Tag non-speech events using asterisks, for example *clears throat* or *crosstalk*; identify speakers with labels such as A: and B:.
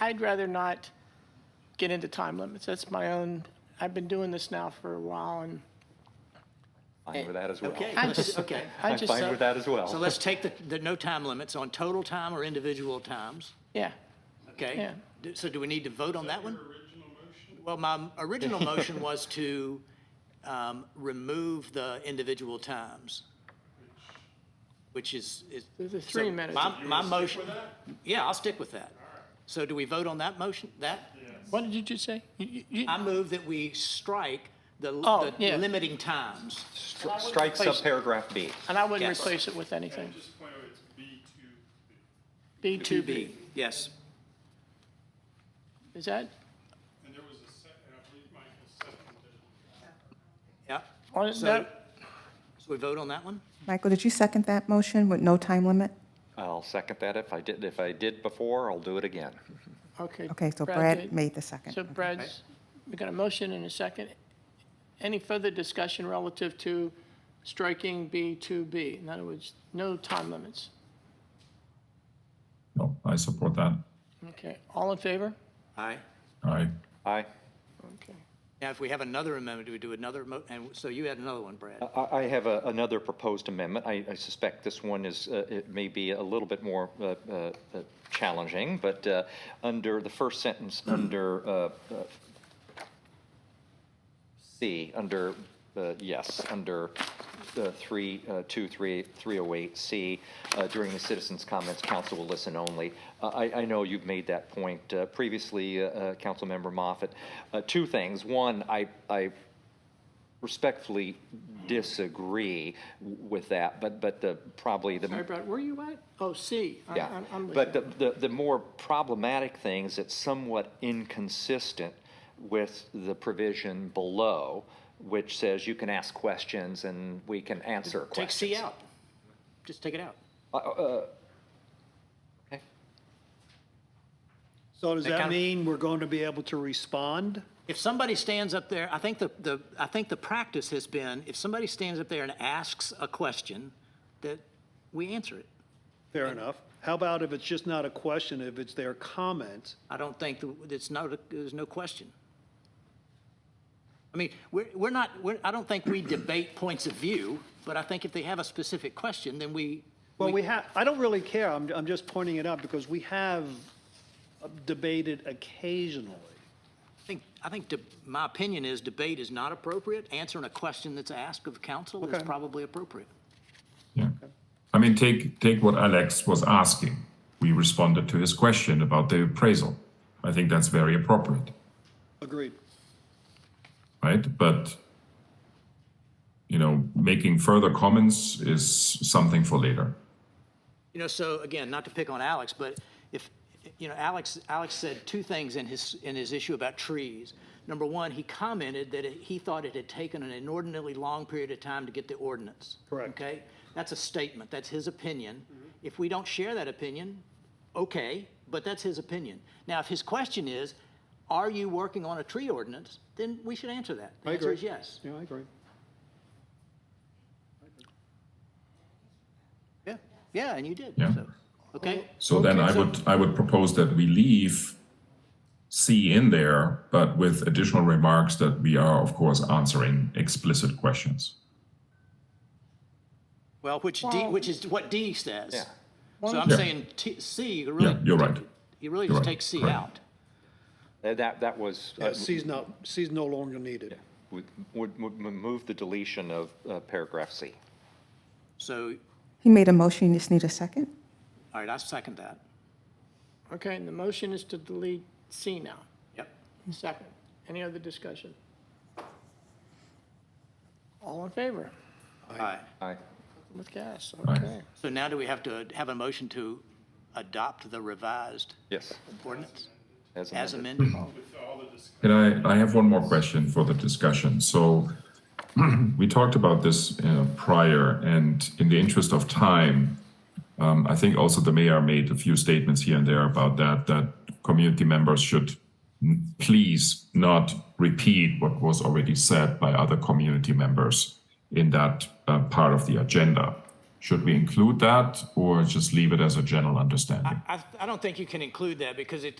A: I'd rather not get into time limits. That's my own, I've been doing this now for a while, and
B: Fine with that as well.
A: I
C: let's-
A: just-
C: okay.
A: I
B: I'm
A: just,
B: fine with that as
C: So
B: well.
C: let's take the, the no time limits on total time or individual times,
A: yeah,
C: okay?
A: Yeah.
C: Do- So do we need to vote on that one? Well, my *laughs* original motion was to um, remove the individual times, which is. is-
A: There's a
C: so
A: three minutes.
C: My, my motion, yeah, I'll stick with that. So do we vote on that motion, that?
A: What did you just say? You- you- you-
C: I move that we strike the
A: Oh,
C: the
A: yeah.
C: limiting times.
B: Stri- Strike subparagraph B.
A: And I wouldn't
C: Yes.
A: replace it with anything.
D: Just point out it's B two.
A: B2B,
C: Yes.
A: is that,
D: And there was a second, I believe Michael seconded it.
C: Yeah.
A: on
C: So-
A: that,
C: So we vote on that one?
E: Michael, did you second that motion with no time limit?
B: I'll second that. If I did, if I did before, I'll do it again.
A: Okay.
E: Okay, so
A: did.
E: Brad made the second.
A: So Brad's, we got a motion and a second. Any further discussion relative to striking B2B? In other words, no time limits.
F: No, I support that.
A: Okay, all in favor?
C: Aye.
F: Aye.
B: Aye.
A: Okay.
C: Now, if we have another amendment, do we do another mo, and so you had another one, Brad?
B: I, I have a- another proposed amendment. I, I suspect this one is, uh, it may be a little bit more uh, uh, uh, challenging, but uh, under the first sentence, under uh, uh, C, under, uh, yes, under uh, 3, uh, 2, 3, 308C, uh, during the citizens' comments, council will listen only. Uh, I, I know you've made that point uh, previously, uh, uh, Councilmember Moffett. Uh, Two things. One, I, I respectfully disagree w- with that, but, but the, probably the.
A: Sorry, Brad, where are you at? Oh, C. I-
B: Yeah,
A: I'm- I'm with
B: but
A: you.
B: the, the, the more problematic thing is it's somewhat inconsistent with the provision below, which says you can ask questions and we can answer
C: Take
B: questions. Uh,
C: C out. Just take it out.
B: Okay.
G: So does
C: That kind
G: that
C: of-
G: mean we're going to be able to respond?
C: If somebody stands up there, I think the, the, I think the practice has been, if somebody stands up there and asks a question, that we answer it.
G: Fair enough. How about if it's just not a question, if it's their comment?
C: I don't think, th- it's no, there's no question. I mean, we're, we're not, we're, I don't think we debate points of view, but I think if they have a specific question, then we,
G: Well, we have, I don't really care. I'm, I'm just pointing it out because we have debated occasionally.
C: I think, I think, de- my opinion is debate is not appropriate. Answering a question that's asked of council is
G: Okay.
C: probably appropriate.
F: Yeah. I mean, take, take what Alex was asking. We responded to his question about the appraisal. I think that's very appropriate,
G: Agreed.
F: right? But, you know, making further comments is something for later.
C: You know, so again, not to pick on Alex, but if, you know, Alex, Alex said two things in his, in his issue about trees. Number one, he commented that it- he thought it had taken an inordinately long period of time to get the ordinance.
G: Correct. Mm-hmm.
C: Okay? That's a statement. That's his opinion. If we don't share that opinion, okay, but that's his opinion. Now, if his question is, are you working on a tree ordinance? Then we should answer that. The
G: I
C: answer
G: agree.
C: is yes.
G: Yeah, I agree.
C: Yeah, yeah, and you did.
F: Yeah.
C: so, Okay,
F: So then I would, I would propose that we leave C in there, but with additional remarks that we are, of course, answering explicit questions.
C: well, which D, which is what D says.
B: Yeah.
C: So I'm
F: Yeah.
C: saying T, C, you
F: Yeah,
C: really.
F: you're right.
C: You really
F: You're
C: just
F: right.
C: take C
F: Correct.
C: out.
B: Uh, That, that was, uh,
G: Yeah, C's not, C's no longer needed.
B: would, would would move the deletion of uh, paragraph C.
C: So,
E: He made a motion, you just need a second?
C: all right, I second that.
A: Okay, and the motion is to delete C now.
C: Yep.
A: Second. Any other discussion? All in favor?
C: All right.
B: Aye.
A: With gas, okay.
C: So now do we have to have a motion to adopt the revised
B: Yes.
C: ordinance as
B: As amended.
C: amended?
F: Oh. Can I, I have one more question for the discussion. So *clears throat* we talked about this uh, prior, and in the interest of time, um, I think also the mayor made a few statements here and there about that, that community members should n- please not repeat what was already said by other community members in that uh, part of the agenda. Should we include that or just leave it as a general understanding?
C: I, I don't think you can include that because it,